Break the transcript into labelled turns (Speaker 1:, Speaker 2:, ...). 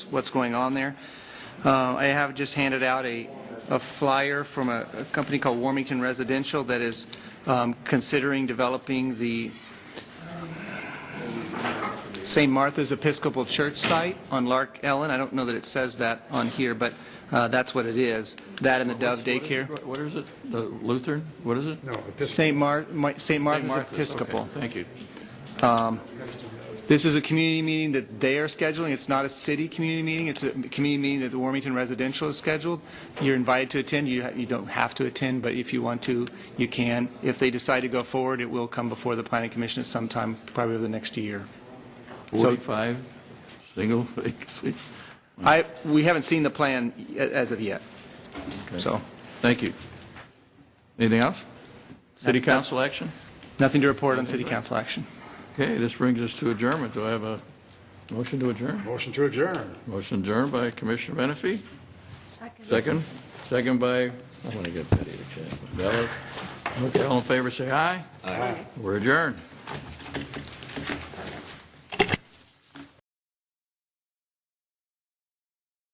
Speaker 1: what's going on there. Uh, I have just handed out a a flyer from a a company called Warmington Residential that is um, considering developing the St. Martha's Episcopal Church site on Lark Ellen. I don't know that it says that on here, but uh, that's what it is. That and the Dove Daycare.
Speaker 2: What is it? Uh, Lutheran? What is it?
Speaker 3: No, at this,
Speaker 1: St. Mar, Mi- St. Martha's
Speaker 2: Martha's.
Speaker 1: Episcopal.
Speaker 2: Okay, Thank you.
Speaker 1: This is a community meeting that they are scheduling. It's not a city community meeting. It's a community meeting that the Warmington Residential is scheduled. You're invited to attend. You, ha- you don't have to attend, but if you want to, you can. If they decide to go forward, it will come before the planning commission at some time, probably over the next year. So-
Speaker 2: 45 single vacancies.
Speaker 1: I, we haven't seen the plan y- as of yet, so,
Speaker 2: Thank you. Anything else? City
Speaker 1: That's- that-
Speaker 2: council action?
Speaker 1: nothing to report on city council action.
Speaker 2: Okay, this brings us to adjournment. Do I have a motion to adjourn?
Speaker 3: motion to adjourn.
Speaker 2: Motion adjourned by Commissioner Menefee. Second. Second by, I want to get Betty to check. Bella. Okay, all in favor, say aye. Aye. We're adjourned.